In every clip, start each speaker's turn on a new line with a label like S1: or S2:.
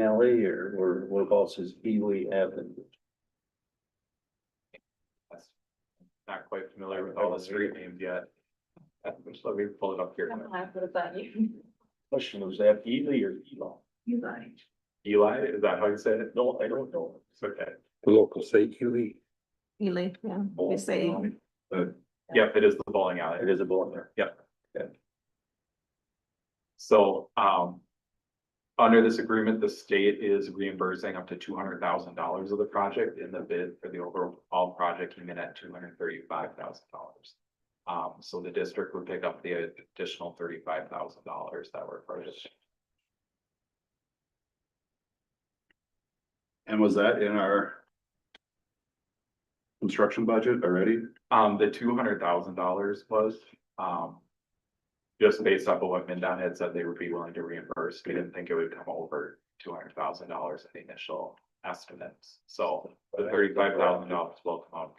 S1: alley or, or what else is Ely Avenue?
S2: That's Not quite familiar with all the street names yet. Uh, just Let me pull it up here.
S3: I'm glad what about you.
S1: Question was that Ely or Elon?
S3: You like.
S2: Eli, is that how you say it?
S1: No, I don't know.
S2: It's okay.
S4: Local say Ely.
S3: Ely, yeah, we say.
S2: Yep, it is the bowling alley.
S1: It is a bowling alley.
S2: So, um. Under this agreement, the state is reimbursing up to two hundred thousand dollars of the project and the bid for the overall project came in at two hundred thirty-five thousand dollars. Um, so the district would pick up the additional thirty-five thousand dollars that were purchased.
S5: And was that in our construction budget already?
S2: Um, the two hundred thousand dollars was, um. Just based off of what MinDOT had said they would be willing to reimburse, we didn't think it would come over two hundred thousand dollars in the initial estimates, so the thirty-five thousand dollars will come out.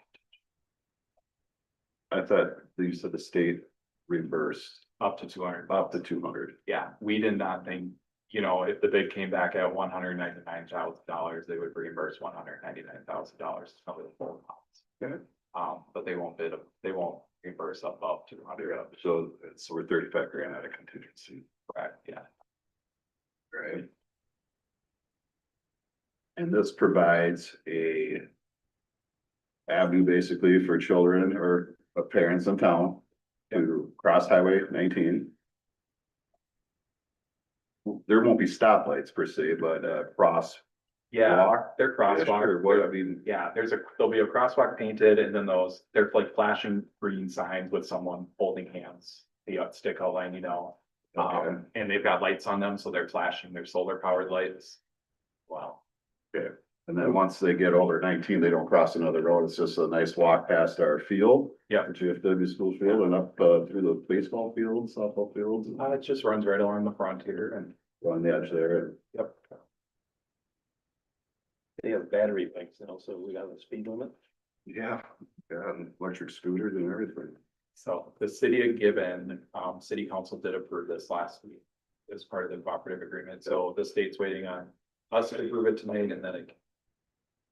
S5: I thought you said the state reimbursed
S2: Up to two hundred,
S5: up to two hundred.
S2: yeah, we did not think, you know, if the bid came back at one hundred ninety-nine thousand dollars, they would reimburse one hundred ninety-nine thousand dollars to cover the full amount.
S5: Okay.
S2: Um, but they won't bid, they won't reimburse above two hundred,
S5: So it's, we're thirty-five grand out of contingency.
S2: correct, yeah.
S5: Right. And this provides a avenue basically for children or parents in town to cross highway nineteen. There won't be stoplights per se, but uh cross. walk,
S2: Their
S5: yeah,
S2: crosswalk.
S5: sure, What I mean,
S2: Yeah, there's a, there'll be a crosswalk painted and then those, they're like flashing green signs with someone holding hands. The uh, stick outline, you know,
S5: okay,
S2: um, and they've got lights on them, so they're flashing their solar powered lights. Wow,
S5: and then once they get older nineteen, they don't cross another road. It's just a nice walk past our field.
S2: Yeah.
S5: our GFW school field and up uh through the baseball fields, softball fields,
S2: uh, it just runs right along the frontier and,
S5: on the edge there and
S2: yep.
S1: They have battery bikes and also we got a speed limit.
S5: Yeah, yeah, and electric scooters and everything.
S2: So the city of Gibbon, um, city council did approve this last week as part of the cooperative agreement. So the state's waiting on us to approve it tonight and then it.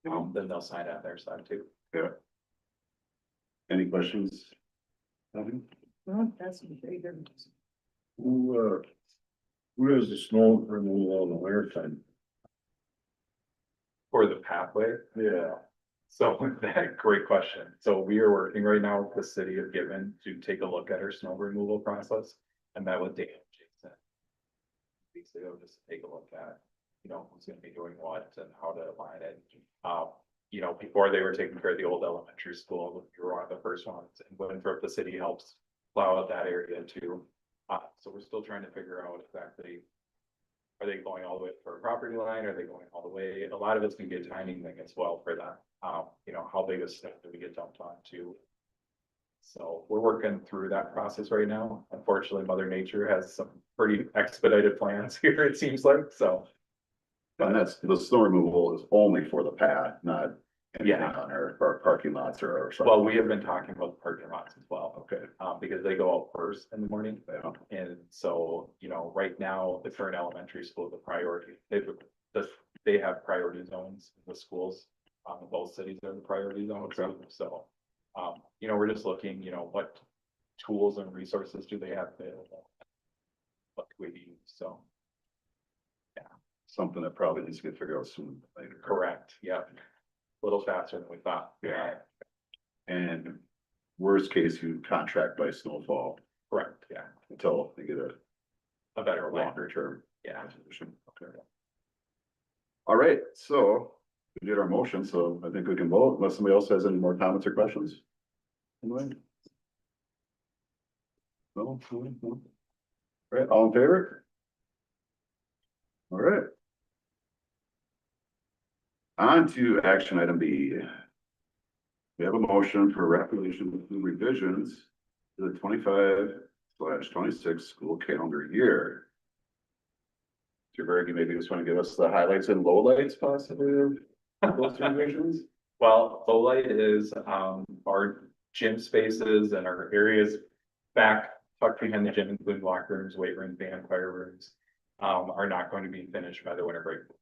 S2: Um, then they'll sign out their side too.
S5: Any questions? Nothing?
S3: That's very good.
S6: Who, uh, who does the snow removal in the winter time?
S2: For the pathway.
S6: Yeah.
S2: So that, great question. So we are working right now with the city of Given to take a look at our snow removal process. and met with Dan Jason. Weeks ago, just to take a look at, you know, who's gonna be doing what and how to align it. Um, you know, before they were taking care of the old elementary school, we were one of the first ones, and Winthrop, the city helps plow out that area too. Uh, so we're still trying to figure out exactly. Are they going all the way for a property line? Are they going all the way? A lot of it's gonna be a timing thing as well for that. Um, you know, how big a step do we get dumped on to? So we're working through that process right now. Unfortunately, Mother Nature has some pretty expedited plans here, it seems like, so.
S5: And that's, the snow removal is only for the pad, not anything
S2: Yeah.
S5: on our, our parking lots or or something.
S2: Well, we have been talking about the parking lots as well,
S5: Okay,
S2: um, because they go out first in the morning.
S5: yeah,
S2: And so, you know, right now, the current elementary school, the priority, they've, the- they have priority zones, the schools. Um, in both cities are in the priority zone, so, um, you know, we're just looking, you know, what tools and resources do they have available? What do we use, so,
S5: something that probably needs to get figured out soon or later.
S2: correct, yeah. A little faster than we thought, yeah,
S5: And worst case, you contract by snowfall
S2: correct, yeah,
S5: until they get a
S2: a better way,
S5: longer term.
S2: yeah.
S5: resolution. Okay. All right, so we did our motion, so I think we can vote unless somebody else has any more comments or questions. Anyone? No, no, no. All right, all in favor? All right. On to action item B. We have a motion for regulation revisions to the twenty-five slash twenty-six school calendar year. Mr. Berg, you maybe just want to give us the highlights and lowlights possibly of those revisions?
S2: Well, the light is, um, our gym spaces and our areas back tucked behind the gym, including locker rooms, weight rooms, band, fire rooms. Um, are not going to be finished by the winter break